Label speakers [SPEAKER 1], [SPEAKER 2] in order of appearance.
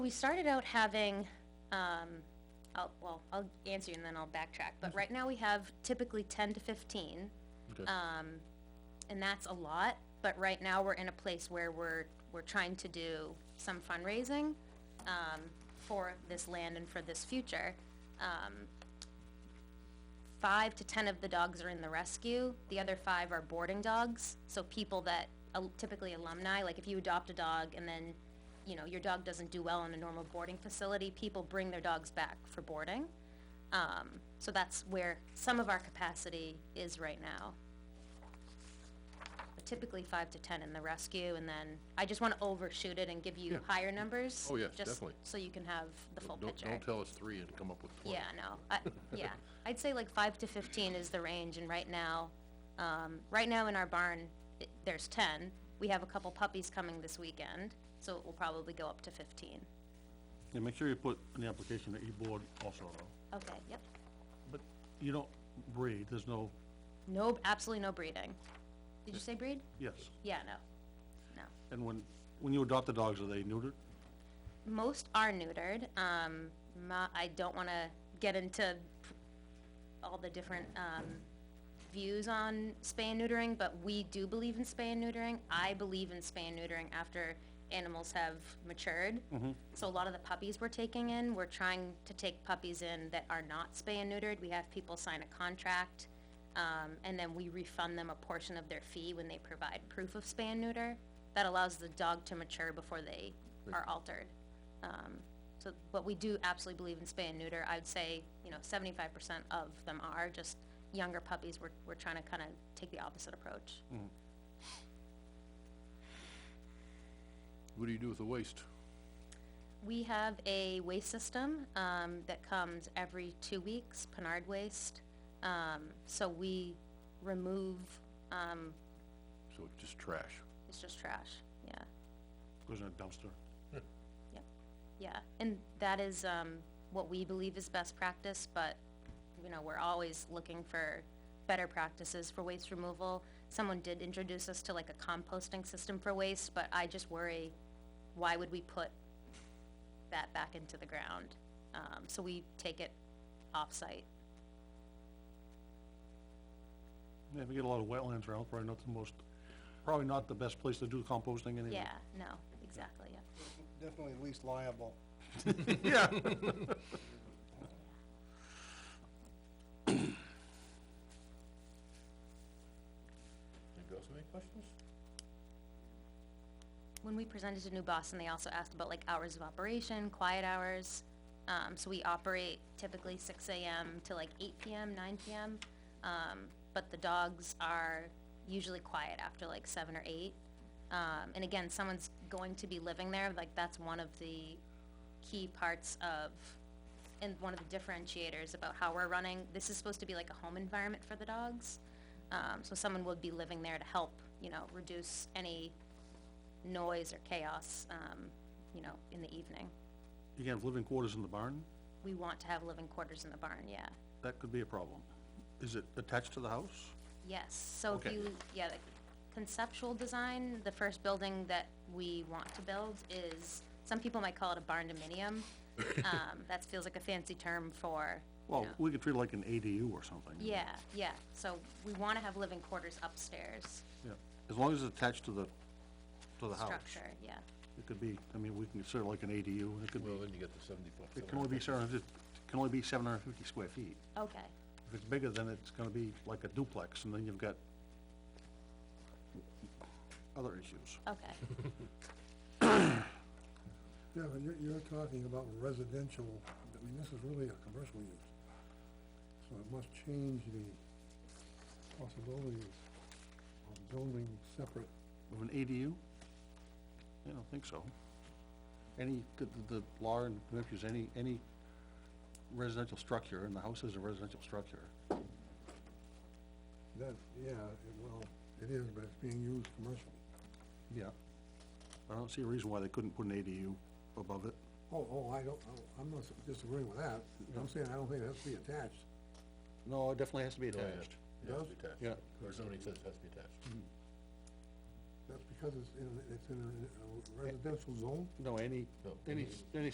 [SPEAKER 1] We started out having, um, I'll, well, I'll answer you and then I'll backtrack, but right now we have typically ten to fifteen.
[SPEAKER 2] Okay.
[SPEAKER 1] Um, and that's a lot, but right now we're in a place where we're, we're trying to do some fundraising, um, for this land and for this future. Um, five to ten of the dogs are in the rescue, the other five are boarding dogs, so people that, al- typically alumni, like if you adopt a dog and then, you know, your dog doesn't do well in a normal boarding facility, people bring their dogs back for boarding. Um, so that's where some of our capacity is right now. But Typically five to ten in the rescue, and then, I just wanna overshoot it and give
[SPEAKER 2] Yeah.
[SPEAKER 1] you higher numbers.
[SPEAKER 2] Oh, yeah,
[SPEAKER 1] just
[SPEAKER 2] definitely.
[SPEAKER 1] So you can have the full
[SPEAKER 2] Don't,
[SPEAKER 1] picture.
[SPEAKER 2] don't tell us three and come up with twenty.
[SPEAKER 1] Yeah, no, I, yeah, I'd say like five to fifteen is the range, and right now, um, right now in our barn, i there's ten. We have a couple puppies coming this weekend, so it will probably go up to fifteen.
[SPEAKER 3] Yeah, make sure you put in the application that you board also, though.
[SPEAKER 1] Okay, yep.
[SPEAKER 3] But you don't breed, there's no,
[SPEAKER 1] No, absolutely no breeding. Did you say breed?
[SPEAKER 3] yes.
[SPEAKER 1] Yeah, no, no.
[SPEAKER 3] And when, when you adopt the dogs, are they neutered?
[SPEAKER 1] Most are neutered. Um, my, I don't want to get into p- all the different um, views on spay and neutering, but we do believe in spay and neutering. I believe in spay and neutering after animals have matured. So a lot of the puppies we're taking in, we're trying to take puppies in that are not spay and neutered. We have people sign a contract, um, and then we refund them a portion of their fee when they provide proof of spay and neuter. That allows the dog to mature before they are altered. Um, so, but we do absolutely believe in spay and neuter. I'd say, you know, seventy-five percent of them are, just younger puppies, we're, we're trying to kind of take the opposite approach.
[SPEAKER 2] What do you do with the waste?
[SPEAKER 1] We have a waste system, um, that comes every two weeks, Pinard Waste. Um, so we remove, um,
[SPEAKER 2] So it's just trash.
[SPEAKER 1] it's just trash, yeah.
[SPEAKER 3] Goes in a dumpster.
[SPEAKER 1] Yeah, and that is, um, what we believe is best practice, but, you know, we're always looking for better practices for waste removal. Someone did introduce us to like a composting system for waste, but I just worry, why would we put that back into the ground? Um, so we take it off-site.
[SPEAKER 3] Yeah, we get a lot of wetlands around, probably not the most, probably not the best place to do composting anyway.
[SPEAKER 1] Yeah, no, exactly, yeah.
[SPEAKER 4] Definitely least liable.
[SPEAKER 3] Yeah.
[SPEAKER 2] Anybody else have any questions?
[SPEAKER 1] When we presented to New Boston, they also asked about like hours of operation, quiet hours. Um, so we operate typically six AM to like eight PM, nine PM. Um, but the dogs are usually quiet after like seven or eight. Um, and again, someone's going to be living there, like that's one of the key parts of, and one of the differentiators about how we're running. This is supposed to be like a home environment for the dogs. Um, so someone would be living there to help, you know, reduce any noise or chaos, um, you know, in the evening.
[SPEAKER 3] You can have living quarters in the barn,
[SPEAKER 1] We want to have living quarters in the barn, yeah.
[SPEAKER 3] that could be a problem. Is it attached to the house?
[SPEAKER 1] Yes, so if
[SPEAKER 2] Okay.
[SPEAKER 1] you, yeah, the conceptual design, the first building that we want to build is, some people might call it a barn dominium. Um, that feels like a fancy term for, you
[SPEAKER 3] Well,
[SPEAKER 1] know-
[SPEAKER 3] we could treat it like an ADU or something.
[SPEAKER 1] Yeah, yeah, so we wanna have living quarters upstairs
[SPEAKER 3] Yeah, as long as it's attached to the, to the house.
[SPEAKER 1] structure, yeah.
[SPEAKER 3] It could be, I mean, we can consider it like an ADU, and it could be,
[SPEAKER 2] Well, then you get the seventy-five.
[SPEAKER 3] it can only be seven hundred, it can only be seven hundred and fifty square feet.
[SPEAKER 1] Okay,
[SPEAKER 3] If it's bigger, then it's gonna be like a duplex, and then you've got other issues.
[SPEAKER 1] okay,
[SPEAKER 4] Yeah, but you're, you're talking about residential, I mean, this is really a commercial use. So it must change the possibilities of zoning separate.
[SPEAKER 3] Of an ADU? I don't think so. Any, the, the law in New Hampshire is any, any residential structure, and the house is a residential structure.
[SPEAKER 4] That, yeah, it- well, it is, but it's being used commercially.
[SPEAKER 3] Yeah. I don't see a reason why they couldn't put an ADU above it.
[SPEAKER 4] Oh, oh, I don't, oh, I'm not disagreeing with that. I'm saying I don't think it has to be attached.
[SPEAKER 3] No, it definitely has to be
[SPEAKER 2] Yeah, yeah.
[SPEAKER 3] attached.
[SPEAKER 2] It has to be attached.
[SPEAKER 3] Yeah.
[SPEAKER 2] Or somebody says it has to be attached.
[SPEAKER 4] That's because it's in, a- it's in a- a residential zone?
[SPEAKER 3] No, any,
[SPEAKER 2] No,
[SPEAKER 3] any,
[SPEAKER 2] any-
[SPEAKER 3] any